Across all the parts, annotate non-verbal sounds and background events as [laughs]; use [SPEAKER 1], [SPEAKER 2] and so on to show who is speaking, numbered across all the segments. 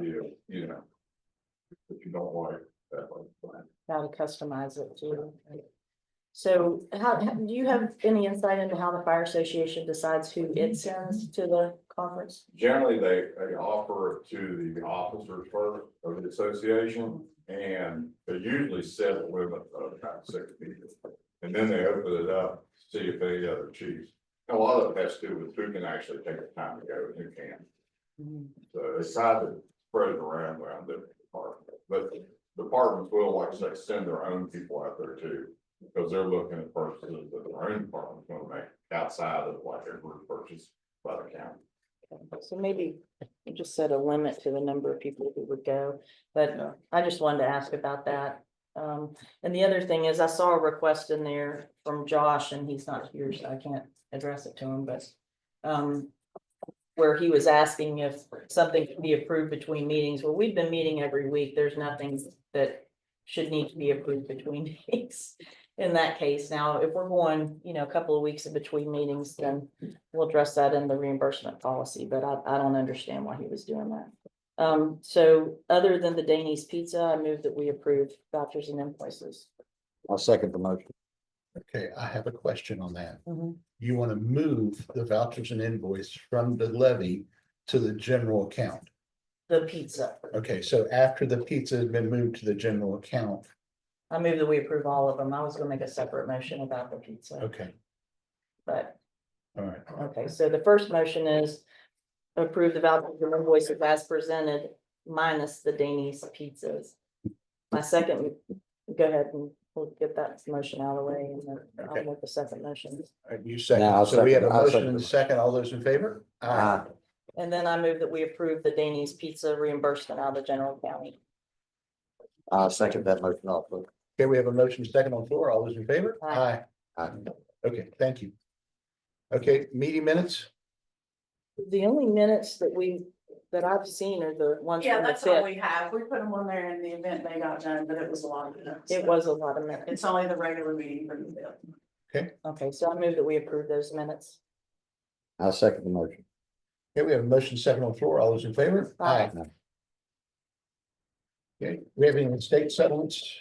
[SPEAKER 1] view, you know. If you don't want it that way. fine.
[SPEAKER 2] how to customize it too. So how, how- do you have any insight into how the fire association decides who it sends to the conference?
[SPEAKER 1] Generally, they, they offer it to the officers first of the association, and they usually set a limit of about six people. And then they open it up, to see if any other chiefs, a lot of it has to do with who can actually take the time to go and who can't. So it's how to spread it around around the department, but departments will, like I say, send their own people out there too. Because they're looking at purchases that their own department's gonna make outside of like their group purchase by the county.
[SPEAKER 2] So maybe you just set a limit to the number of people who would go, but I just wanted to ask about that. Um, and the other thing is I saw a request in there from Josh and he's not here, so I can't address it to him, but um, where he was asking if something could be approved between meetings. Well, we've been meeting every week. There's nothing that should need to be approved between [laughs] meetings. In that case, now, if we're going, you know, a couple of weeks in between meetings, then we'll address that in the reimbursement policy, but I, I don't understand why he was doing that. Um, so other than the Danny's Pizza, I move that we approve vouchers and invoices.
[SPEAKER 3] I'll second the motion.
[SPEAKER 4] Okay, I have a question on that. You want to move the vouchers and invoice from the levy to the general account.
[SPEAKER 2] The pizza,
[SPEAKER 4] Okay, so after the pizza has been moved to the general account,
[SPEAKER 2] I move that we approve all of them. I was gonna make a separate motion about the pizza,
[SPEAKER 4] okay,
[SPEAKER 2] but
[SPEAKER 4] all right.
[SPEAKER 2] Okay, so the first motion is approve the vouchers and invoices as presented minus the Denny's pizzas. My second, go ahead and we'll get that motion out of the way and then I'll
[SPEAKER 4] Okay.
[SPEAKER 2] make the second motion.
[SPEAKER 4] All right, You
[SPEAKER 3] Yeah, I'll
[SPEAKER 4] second, so we have a
[SPEAKER 3] second- I'll
[SPEAKER 4] motion
[SPEAKER 3] second.
[SPEAKER 4] and a second, all those in favor?
[SPEAKER 3] Aye.
[SPEAKER 2] And then I move that we approve the Denny's pizza reimbursement out of the general county.
[SPEAKER 3] I'll second that motion also.
[SPEAKER 4] Okay, we have a motion second on the floor, all those in favor?
[SPEAKER 2] Aye.
[SPEAKER 3] Aye.
[SPEAKER 4] Okay, thank you. Okay, meeting minutes,
[SPEAKER 2] The only minutes that we, that I've seen are the ones
[SPEAKER 5] Yeah,
[SPEAKER 2] from the
[SPEAKER 5] that's all
[SPEAKER 2] fifth.
[SPEAKER 5] we have. We put them on there in the event they got done, but it was a lot of minutes.
[SPEAKER 2] It was a lot of minutes.
[SPEAKER 5] It's only the regular meeting for the bill.
[SPEAKER 2] Okay, so I move that we approve those minutes.
[SPEAKER 3] I'll second the motion.
[SPEAKER 4] okay, we have a motion second on the floor, all those in favor?
[SPEAKER 2] Aye.
[SPEAKER 4] Okay, we have any state settlements?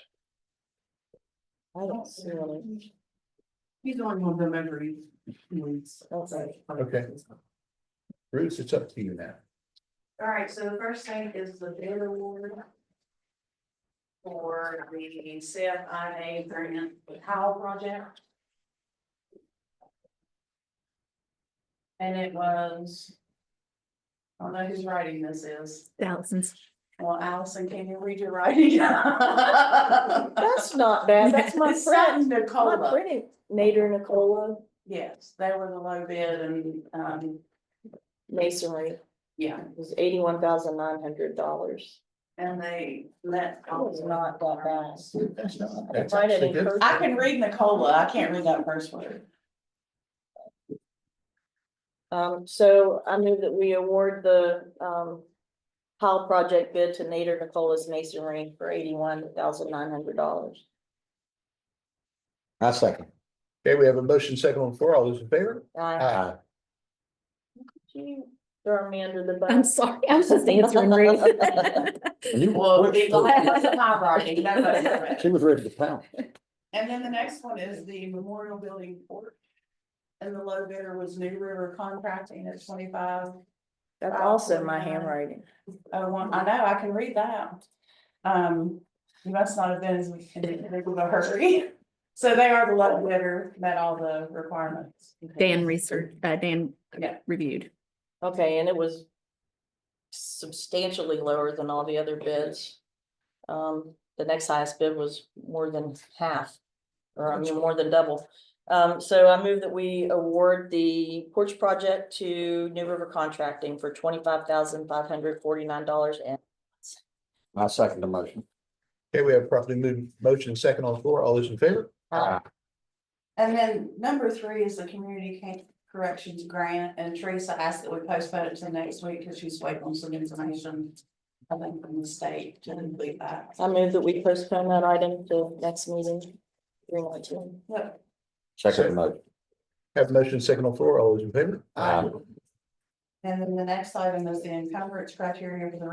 [SPEAKER 2] I don't see any.
[SPEAKER 5] [laughs] He's only one of them every weeks.
[SPEAKER 2] Okay.
[SPEAKER 4] Okay. Bruce, it's up to you now.
[SPEAKER 5] All right, so the first thing is the bid award. For the CFIA grant, the Howell project. And it was. I don't know whose writing this is.
[SPEAKER 6] thousands.
[SPEAKER 5] Well, Allison, can you read your writing? [laughs]
[SPEAKER 2] That's not bad. That's my
[SPEAKER 5] It's set
[SPEAKER 2] friend.
[SPEAKER 5] in
[SPEAKER 2] My
[SPEAKER 5] Nicola,
[SPEAKER 2] pretty Nader Nicola
[SPEAKER 5] yes, they were the low bid and, um,
[SPEAKER 2] masonry
[SPEAKER 5] yeah,
[SPEAKER 2] was eighty-one thousand nine hundred dollars.
[SPEAKER 5] and they let.
[SPEAKER 2] That was not that bad.
[SPEAKER 4] That's not-
[SPEAKER 2] I
[SPEAKER 4] that's
[SPEAKER 2] tried it
[SPEAKER 4] actually
[SPEAKER 2] in
[SPEAKER 4] good.
[SPEAKER 2] person.
[SPEAKER 5] I can read Nicola, I can't read that first word.
[SPEAKER 2] Um, so I move that we award the, um, Powell project bid to Nader Nicola's masonry for eighty-one thousand nine hundred dollars.
[SPEAKER 3] I'll second.
[SPEAKER 4] Okay, we have a motion second on the floor. All those in favor?
[SPEAKER 3] Uh,
[SPEAKER 2] I,
[SPEAKER 4] Aye.
[SPEAKER 2] you throw me under the bus.
[SPEAKER 6] I'm sorry, I
[SPEAKER 2] [laughs]
[SPEAKER 6] was just answering Ruth.
[SPEAKER 3] You
[SPEAKER 5] Well,
[SPEAKER 3] switched
[SPEAKER 5] Nicola
[SPEAKER 3] to-
[SPEAKER 5] was my writing, that's what I read.
[SPEAKER 3] She was ready to pound.
[SPEAKER 5] And then the next one is the memorial building court. And the low bidder was New River Contracting at twenty-five
[SPEAKER 2] That's also my handwriting.
[SPEAKER 5] Oh, well, I know, I can read that. Um, you must not have been as we can, in a hurry. [laughs] So they are the love letter, met all the requirements.
[SPEAKER 6] Dan research, uh, Dan
[SPEAKER 5] Yeah.
[SPEAKER 6] reviewed.
[SPEAKER 2] Okay, and it was substantially lower than all the other bids. Um, the next highest bid was more than half, or I mean, more than double. Um, so I move that we award the porch project to New River Contracting for twenty-five thousand five hundred forty-nine dollars and
[SPEAKER 3] I'll second the motion.
[SPEAKER 4] Okay, we have properly moved motion second on the floor. All those in favor?
[SPEAKER 2] Aye.
[SPEAKER 5] And then number three is the community ca- corrections grant, and Teresa asked that we postpone it to next week because she's waiting on some information. I think from the state to complete that.
[SPEAKER 2] I move that we postpone that item to next meeting. three nineteen.
[SPEAKER 5] Yep.
[SPEAKER 3] Second the motion.
[SPEAKER 4] Have motion second on the floor. All those in favor?
[SPEAKER 3] Aye.
[SPEAKER 5] And then the next item is the encumbrance criteria for the